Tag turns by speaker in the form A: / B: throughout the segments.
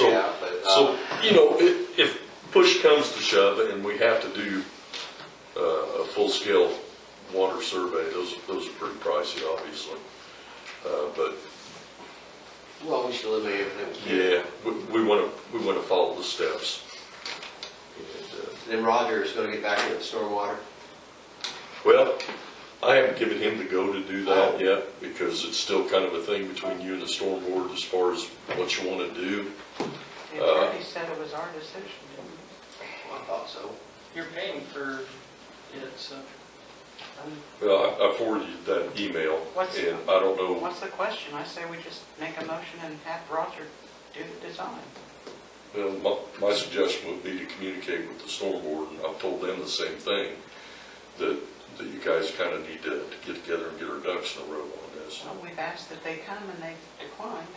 A: um,
B: you know, if, if push comes to shove and we have to do uh, a full-scale water survey, those, those are pretty pricey, obviously. Uh, But,
A: Well, we should eliminate everything we can.
B: yeah, we, we want to, we want to follow the steps. And, uh,
A: Then Roger is gonna get back to the stormwater.
B: Well, I haven't given him the go to do that yet, because it's still kind of a thing between you and the storm board as far as what you want to do.
C: And Debbie said it was our decision, didn't
A: I thought so.
D: You're paying for it, so.
B: Well, I I forwarded you that email,
C: What's-
B: and I don't
C: we?
B: know,
C: What's the question? I say we just make a motion and have Roger do the design.
B: well, my- my suggestion would be to communicate with the storm board, and I've told them the same thing, that, that you guys kind of need to to get together and get our ducks in a row on this.
C: So we've asked that they come and they declined.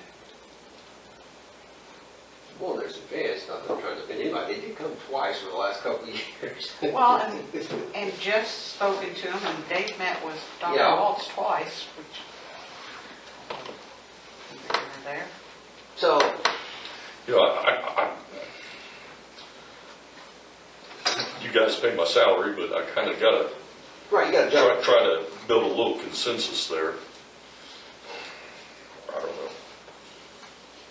A: Well, there's a chance, not that I'm trying to offend anybody, they did come twice over the last couple of years.
C: Well, and, and Jeff's spoken to him and Dave met with Dr.
A: Yeah.
C: Waltz twice, which. They were There.
A: So,
B: You know, I, I, I, you guys pay my salary, but I kind of got to
A: right, you gotta
B: try,
A: jump.
B: try to build a little consensus there. I don't know.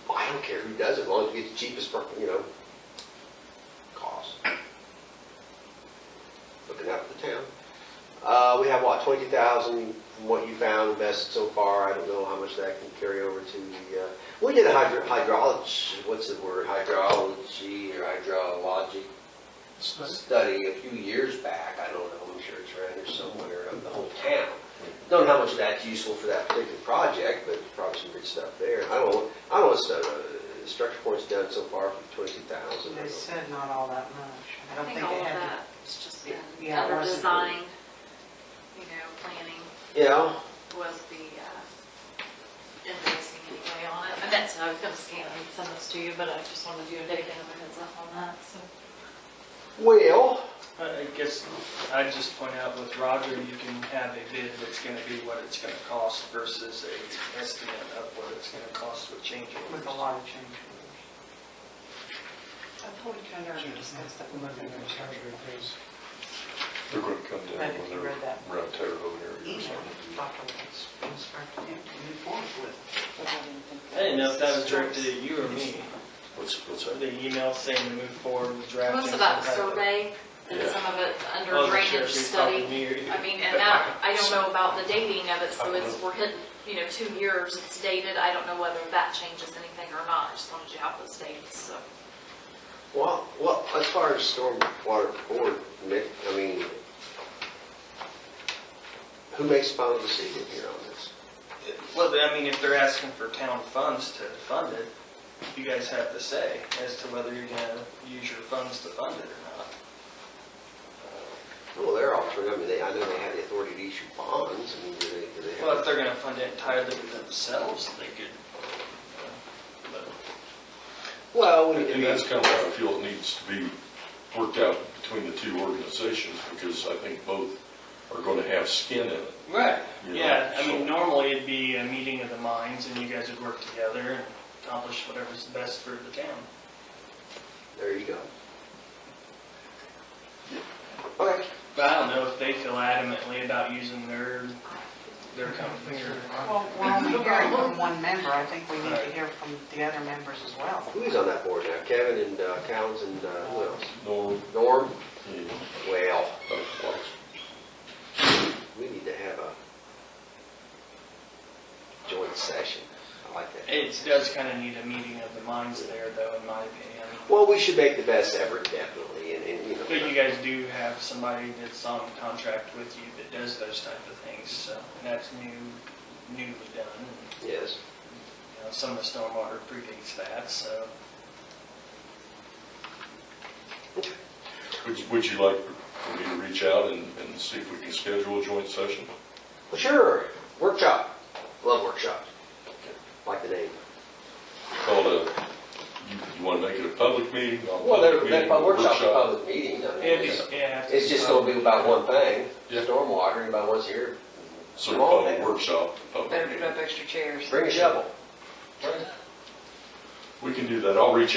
A: Well, I don't care who does it, as long as you get the cheapest, per- you know, cost. Looking out for the town. Uh, we have, what, twenty thousand from what you found invested so far, I don't know how much that can carry over to the, uh, we did a hydro, hydrology, what's the word, hydrology or hydrologic study a few years back, I don't know, I'm sure it's around here somewhere, of the whole town. Don't know how much of that's useful for that particular project, but probably some good stuff there. I don't, know- I don't know what's, uh, structure point's done so far for twenty-two thousand.
C: They said not all that much. I
E: I
C: don't
E: think
C: think
E: all
C: it
E: of
C: had.
E: that, it's just been
C: Yeah, it
E: under
C: wasn't-
E: design, you know, planning
A: Yeah,
E: was the, uh, invoicing anyway on it. And that's, I was gonna scan and send those to you, but I just wanted you to take a heads up on that, so.
A: well,
D: I I guess I'd just point out with Roger, you can have a bid that's gonna be what it's gonna cost versus a estimate of what it's gonna cost with change
C: With a
D: orders.
C: lot of change orders. I told you I already discussed that.
B: They're going to come down
C: Right, if
B: when
C: you
B: they're
C: read that.
B: around Terre Haute area or
C: Email
B: something.
C: Dr. Waltz, instruct him to move forward with.
D: I didn't know if that was directed at you or me,
B: What's, what's that?
D: the email saying to move forward with drafting.
E: Most of that
D: some type of-
E: survey and
B: Yeah.
E: some of it under
D: Wasn't sure
E: drainage
D: if you're talking to
E: study.
D: me or you.
E: I mean, and that, I don't know about the dating of it, so it's, we're hitting, you know, two years, it's dated. I don't know whether that changes anything or not. I just wanted you to have those dates, so.
A: well, well, as far as stormwater board, Mick, I mean, who makes the final decision here on this?
D: Well, I mean, if they're asking for town funds to fund it, you guys have to say as to whether you're gonna use your funds to fund it or not.
A: Well, they're offering, I mean, they, I know they have the authority to issue bonds, I mean, do they, do they have?
D: Well, if they're gonna fund it entirely themselves, they could. uh, but-
A: Well, we need to
B: And
A: be.
B: that's kind of how I feel it needs to be worked out between the two organizations, because I think both are going to have skin in it.
D: Right,
B: Yeah,
D: yeah, I
B: sure.
D: mean, normally it'd be a meeting of the minds and you guys would work together and accomplish whatever's best for the town.
A: There you go. Okay.
D: But I don't know if they feel adamantly about using their, their company or.
C: Well, we're only hearing from one member, I think we need to hear from the other members as well.
A: Who's on that board now? Kevin and uh, Towns and uh, who else?
B: Norm,
A: Norm?
B: yeah,
A: Well,
B: Dr. Watts.
A: we need to have a joint session. I like that.
D: It does kind of need a meeting of the minds there though, in my opinion.
A: Well, we should make the best effort, definitely, and, and, you
D: But you
A: know.
D: guys do have somebody that's on contract with you that does those type of things, so, and that's new, newly done.
A: Yes.
D: You know, some of the stormwater predates that, so.
B: Would, you- would you like for me to reach out and, and see if we can schedule a joint session?
A: Well, sure. Workshop. Love workshops. Like the name.
B: Call it a, you, you want to make it a public meeting? not a
A: Well, they're,
B: public
A: they're
B: meeting,
A: workshops, public meetings. I mean, it's-
D: yeah.
A: It's just gonna be about one thing,
B: Yeah.
A: stormwater, anybody wants to hear,
B: So we call it a workshop, a public meeting.
C: extra chairs.
A: bring a shovel.
B: We can do that. I'll reach out.